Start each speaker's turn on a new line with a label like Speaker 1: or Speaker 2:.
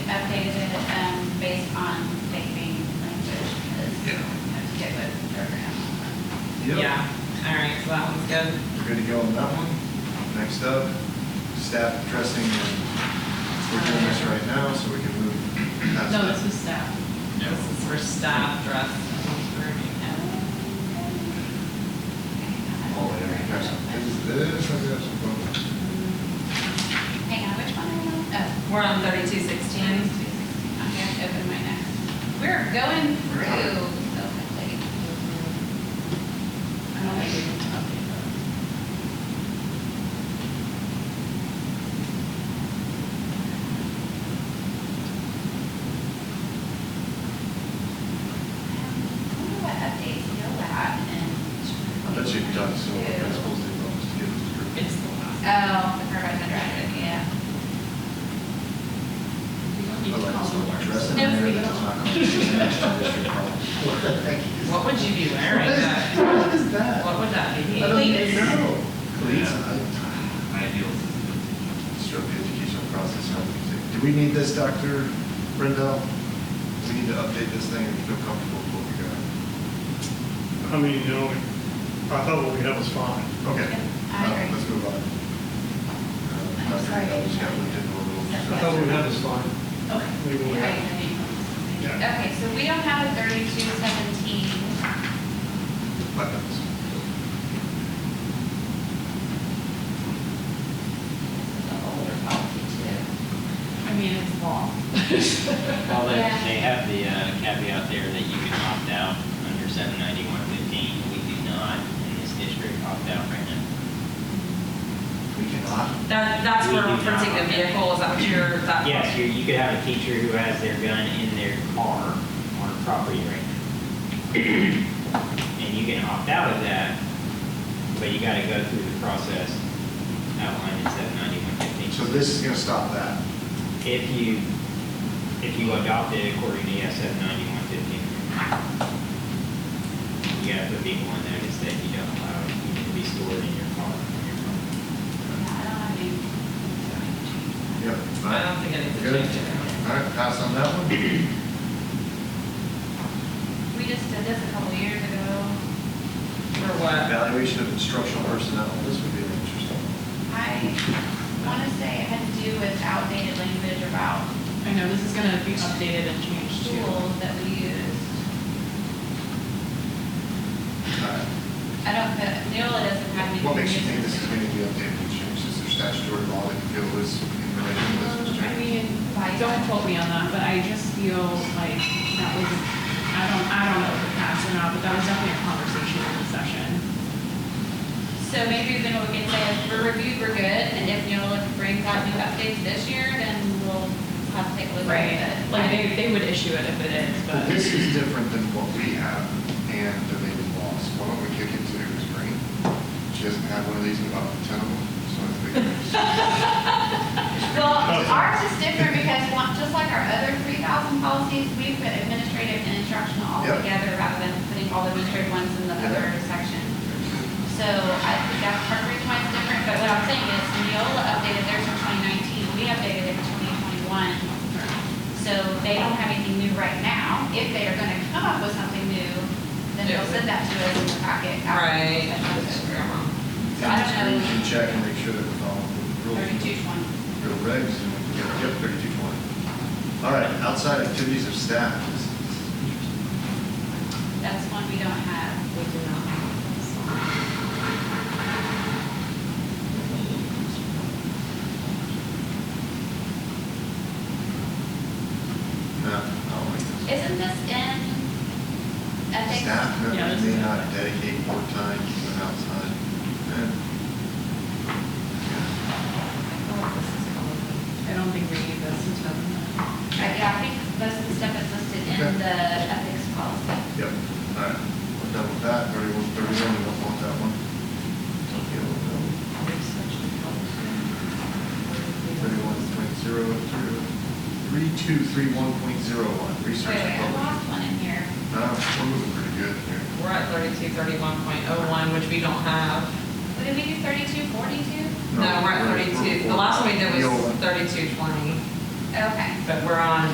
Speaker 1: um,
Speaker 2: That one's good.
Speaker 3: We're good to go on that one. Next up, staff addressing, and we're doing this right now, so we can move past
Speaker 2: No, this
Speaker 3: that.
Speaker 2: is staff. This is for staff dress.
Speaker 3: Oh, yeah, we got some- This is, this is, this is-
Speaker 1: Hang on, which one are we on? Oh,
Speaker 2: We're on thirty-two
Speaker 1: James,
Speaker 2: sixteen.
Speaker 1: I have to open my next. We're going through so quickly. I don't think we can update those. I wonder what updates go out
Speaker 3: I
Speaker 1: and.
Speaker 3: bet you've done so, that's supposed to be, supposed to give us a group.
Speaker 2: It's the last.
Speaker 1: Oh, the carbon hydrated, yeah.
Speaker 2: We don't need
Speaker 3: I
Speaker 2: to
Speaker 3: like
Speaker 2: call
Speaker 3: this
Speaker 2: the
Speaker 3: little
Speaker 2: words.
Speaker 3: dress in
Speaker 1: No,
Speaker 3: there
Speaker 1: we don't.
Speaker 3: that's not going to be an extra district problem. Thank you.
Speaker 2: What would you be wearing? that-
Speaker 3: What is that?
Speaker 2: What would that
Speaker 3: I
Speaker 2: be?
Speaker 3: don't
Speaker 2: Please.
Speaker 3: know.
Speaker 4: Cleats.
Speaker 3: I-
Speaker 4: Ideals is
Speaker 3: Stroke the educational process. how we say- Do we need this, Dr. Rendell? We need to update this thing and feel comfortable with what we got.
Speaker 5: I mean, you know, I thought what we had was fine.
Speaker 3: Okay.
Speaker 1: I
Speaker 3: Uh,
Speaker 1: agree.
Speaker 3: Let's move on. Uh,
Speaker 1: I'm
Speaker 3: Dr.
Speaker 1: sorry.
Speaker 3: Rendell just got looked into a little.
Speaker 5: I thought what we had was fine.
Speaker 1: Okay.
Speaker 5: We will-
Speaker 1: Yeah, I agree.
Speaker 5: Yeah.
Speaker 1: Okay, so we don't have a thirty-two seventeen.
Speaker 3: Weapons.
Speaker 1: This is an older policy too.
Speaker 2: I mean, it's law.
Speaker 6: Well, they,
Speaker 1: Yeah.
Speaker 6: they have the uh, caveat there that you can opt out under seven ninety-one fifteen. We do not in this district opt out right now.
Speaker 3: We cannot.
Speaker 2: That, that's for
Speaker 6: We do not.
Speaker 2: renting a vehicle, is that what you're, that?
Speaker 6: Yes, you, you could have a teacher who has their gun in their car on property right now. And you can opt out of that, but you gotta go through the process outlined in seven ninety-one fifteen.
Speaker 3: So this is gonna stop that.
Speaker 6: If you, if you adopt it according to SF ninety-one fifteen, you gotta put people on notice that you don't allow it to be stored in your car. on your property.
Speaker 1: Yeah, I don't have any.
Speaker 3: Yep.
Speaker 2: I don't think I need to
Speaker 3: Good.
Speaker 2: change it.
Speaker 3: All right, pass on that one.
Speaker 1: We just did this a couple years ago.
Speaker 2: For what?
Speaker 3: Evaluation of instructional personnel, this would be an interesting. one.
Speaker 1: I want to say it had to do with outdated language about
Speaker 2: I know, this is gonna be updated and changed
Speaker 1: tools that we used.
Speaker 3: All right.
Speaker 1: I don't, the- Neola doesn't have any.
Speaker 3: What makes you think this is going to be updated and changed? Is there statutory law that you feel is in relation to this? was
Speaker 2: Um, I
Speaker 3: changed?
Speaker 2: mean, don't quote me on that, but I just feel like that was, I don't, I don't know if it passed or not, but that was definitely a conversation in the session.
Speaker 1: So maybe then we can say if we're reviewed, we're good, and if Neola brings out new updates this year, then we'll have to take a look at it.
Speaker 2: Like, they, they would issue it if it is,
Speaker 3: But
Speaker 2: but.
Speaker 3: this is different than what we have and the native laws. Why don't we kick it to Ms. Green? She doesn't have one of these in about ten of them, so I think.
Speaker 1: Well,
Speaker 3: Oh,
Speaker 1: ours is different because one- just like our other three thousand policies, we put administrative and instructional all
Speaker 3: Yep.
Speaker 1: together rather than putting all the administrative ones in the
Speaker 3: Yeah.
Speaker 1: other section. So I think that part of the reason why it's different, but what I'm saying is Neola updated theirs in twenty nineteen, we updated it in twenty twenty-one. So they don't have anything new right now. If they are gonna come up with something new, then they'll send that to us in the packet. after the
Speaker 2: Right.
Speaker 1: session's over. So I
Speaker 3: Ms.
Speaker 1: don't
Speaker 3: Green
Speaker 1: know.
Speaker 3: can check and make sure that we're following the rules,
Speaker 1: Thirty-two twenty.
Speaker 3: the regs, and we can get thirty-two twenty. All right, outside activities of staff. This is-
Speaker 1: That's one we don't have.
Speaker 2: We do not have this one.
Speaker 3: No, I don't like this.
Speaker 1: Isn't this in ethics?
Speaker 3: Staff
Speaker 2: Yeah,
Speaker 3: members
Speaker 2: that's
Speaker 3: may
Speaker 2: good.
Speaker 3: not dedicate more time to the outside. Yeah.
Speaker 2: I don't think we need this until.
Speaker 1: Right, yeah, I think most of the stuff is listed in the ethics policy.
Speaker 3: Yep, all right, we're done with that, thirty-one, thirty-one, we don't want that one. Okay, we'll go Thirty-one, point zero, through, three, two, three, one, point zero, one,
Speaker 1: Wait,
Speaker 3: research
Speaker 1: wait, I
Speaker 3: and publishing.
Speaker 1: lost one in here.
Speaker 3: Uh, we're moving pretty good here.
Speaker 2: We're at thirty-two thirty-one point oh one, which we don't have.
Speaker 1: What Did we do thirty-two, forty-two?
Speaker 2: No, we're at thirty-two, the last one we did
Speaker 3: The old
Speaker 2: was
Speaker 3: oh one.
Speaker 2: thirty-two twenty,
Speaker 1: Okay.
Speaker 2: but we're on